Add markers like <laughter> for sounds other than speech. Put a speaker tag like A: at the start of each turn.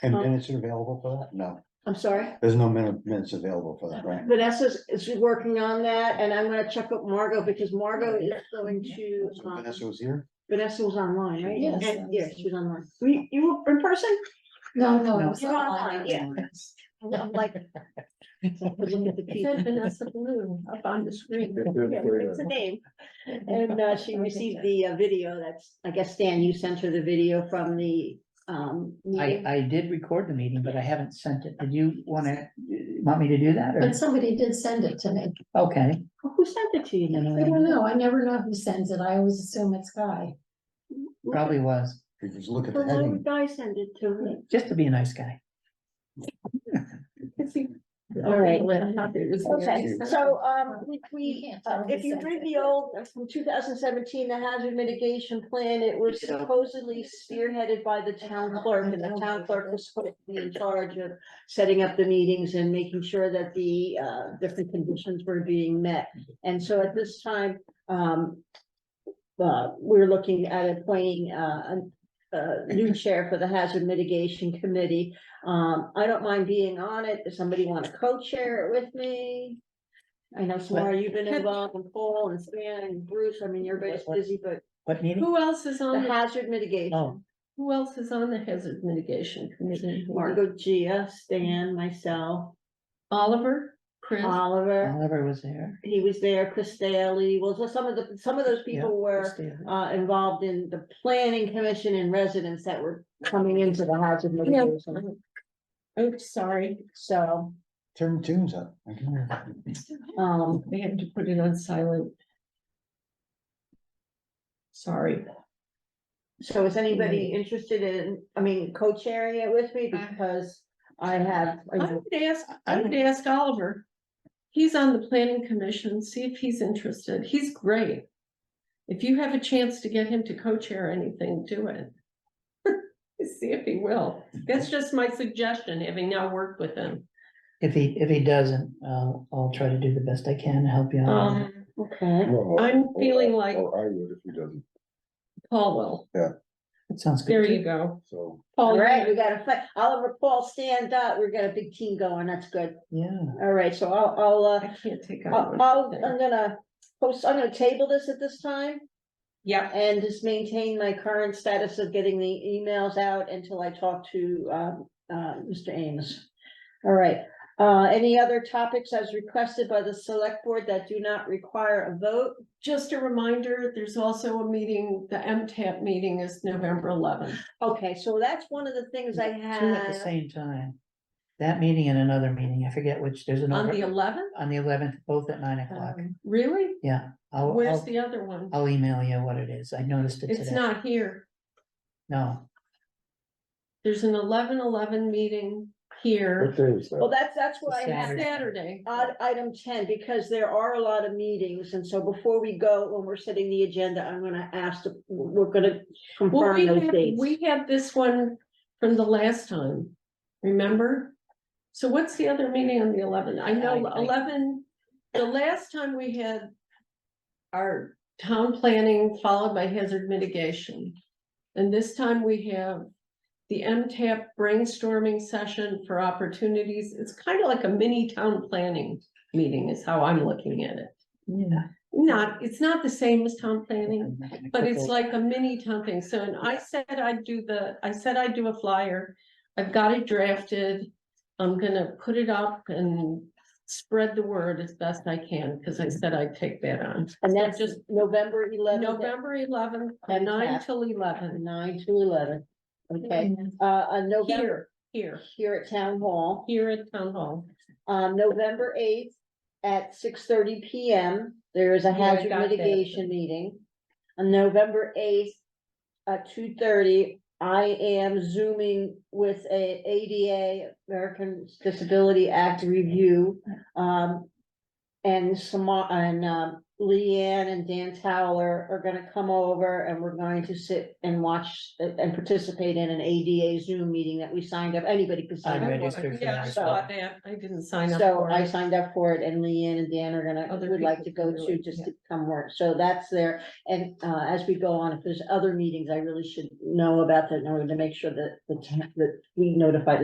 A: And
B: Um,
A: minutes are available for that? No,
B: I'm sorry.
A: there's no minute, minutes available for that, right?
B: Vanessa's is working on that and I'm gonna check up Margot because Margot is going to,
A: So
B: um,
A: Vanessa was here?
B: Vanessa was online, right?
C: Yes.
B: And- Yeah, she was online. Were You, you were in person?
C: No,
A: No.
C: no, it was
B: You're
C: online.
B: online, yeah. I'm like. looking at the
C: It said
B: key.
C: Vanessa Blue up on the screen.
B: Yeah, It's a name. And uh, she received the uh, video that's, I guess, Stan, you sent her the video from the um.
D: I,
B: meeting.
D: I did record the meeting, but I haven't sent it. Did you wanna, want me to do that or?
C: But somebody did send it to me.
D: Okay,
B: Who sent it to you?
D: No, no,
C: I
B: Nancy?
C: don't know. I never know who sends it. I always assume it's Guy.
D: probably was,
A: You just look at
B: So
A: the
E: Uh-huh.
B: why would
A: heading.
B: Guy send it to me?
D: just to be a nice guy.
B: All right. Okay,
C: Okay,
B: so, um, we, we,
C: can't
B: uh,
C: tell
B: if
C: who
B: you
C: sent
B: read
C: it.
B: the old, uh, from two thousand seventeen, the hazard mitigation plan, it was supposedly spearheaded by the town clerk, and the town clerk was supposed to be in charge of setting up the meetings and making sure that the, uh, different conditions were being met. And so at this time, um, uh, we're looking at appointing, uh, a, a new chair for the hazard mitigation committee. Um, I don't mind being on it. Does somebody want to co-chair it with me? I know Samara, you've been involved and Paul and Stan and Bruce. I mean, everybody's busy, but
D: What meeting?
C: Who else is
B: the
C: on, the-
B: hazard mitigation,
D: Oh.
C: who else is on the hazard mitigation committee?
B: Margot Gia, Stan, myself,
C: Oliver, Chris,
B: Uh, Oliver.
D: Oliver was there.
B: He was there, Chris Daley. Well, so some of the, some of those people were
D: Christina.
B: uh, involved in the planning commission and residents that were coming into the hazard mitigation.
E: Oops, sorry.
B: So,
A: Turn tunes up. I can hear it.
B: um,
E: I had to put it on silent. Sorry.
B: so is anybody interested in, I mean, co-chairing it with me because I have, you
E: I
B: know,
E: would ask, I would ask Oliver. He's on the planning commission, see if he's interested. He's great. If you have a chance to get him to co-chair anything, do it. <laughs> See if he will. That's just my suggestion, having now worked with him.
D: If he, if he doesn't, I'll, I'll try to do the best I can to help you out.
E: Um,
B: okay.
F: Well,
E: I'm
F: or-
E: feeling like-
F: Or I would if he doesn't,
E: Paul will.
D: It sounds good.
E: There
D: too.
E: you go.
F: so.
E: Paul,
B: All
E: you're
B: right, we got a, fi- Oliver, Paul, stand up. We've got a big team going. That's good.
D: Yeah,
B: All right, so I'll, I'll, uh,
E: I can't take
B: I'll,
E: on.
B: I'll- I'm gonna post, I'm gonna table this at this time.
E: Yep,
B: And just maintain my current status of getting the emails out until I talk to, um, uh, Mr. Ames. All right, uh, any other topics as requested by the select board that do not require a vote?
E: just a reminder, there's also a meeting, the MTAP meeting is November eleventh.
B: Okay, so that's one of the things I
D: two at the
B: had.
D: same time. That meeting and another meeting, I forget which, there's an.
E: On
D: over-
E: the eleventh, Um,
D: On the eleventh, both at nine o'clock.
E: really?
D: Yeah, I'll,
E: Where's
D: I'll,
E: the other one?
D: I'll email you what it is. I noticed it today.
E: It's not here.
D: No,
E: There's an eleven eleven meeting here,
F: What day is
B: Well,
F: that?
B: that's, that's what I had.
D: Saturday.
E: Saturday.
B: Odd item ten, because there are a lot of meetings, and so before we go, when we're setting the agenda, I'm gonna ask, the- we're gonna
E: Well,
B: confirm
E: we
B: those
E: had,
B: dates.
E: we had this one from the last time, remember? So what's the other meeting on the eleventh? I know
D: I- I-
E: eleven, the last time we had our town planning followed by hazard mitigation. And this time we have the MTAP brainstorming session for opportunities. It's kind of like a mini town planning meeting is how I'm looking at it.
D: yeah.
E: Not, it's not the same as town planning, but it's
D: Couple-
E: like a mini town thing, so, and I said I'd do the, I said I'd do a flyer, I've got it drafted. I'm gonna put it up and spread the word as best I can, because
B: Mm-hmm.
E: I said I'd take that on.
B: And that's
E: just-
B: November eleventh.
E: November eleventh,
B: And
E: nine
B: tap.
E: till eleven,
B: Nine to eleven,
C: Mm.
B: okay, uh, on November,
E: here, here,
B: here at Town Hall,
E: here at Town Hall.
B: on um, November eighth at six thirty P M. There is a
E: Yeah, I
B: hazard
E: got that.
B: mitigation meeting. On November eighth at two thirty, I am zooming with a ADA, American Disability Act Review. Um, and Samar, and, um, Leanne and Dan Towler are gonna come over and we're going to sit and watch and and participate in an ADA Zoom meeting that we signed up, anybody could sign
D: I
B: up.
D: registered for
E: Yeah,
D: that
E: I
D: as
E: saw
D: well.
E: that. I didn't sign up
B: So
E: for
B: I
E: it.
B: signed up for it and Leanne and Dan are gonna,
E: Other
B: would like to
E: people
B: go
E: can do
B: to
E: it,
B: just
E: yeah.
B: to come work. So that's there. And uh, as we go on, if there's other meetings, I really should know about that in order to make sure that the, town- that we notify the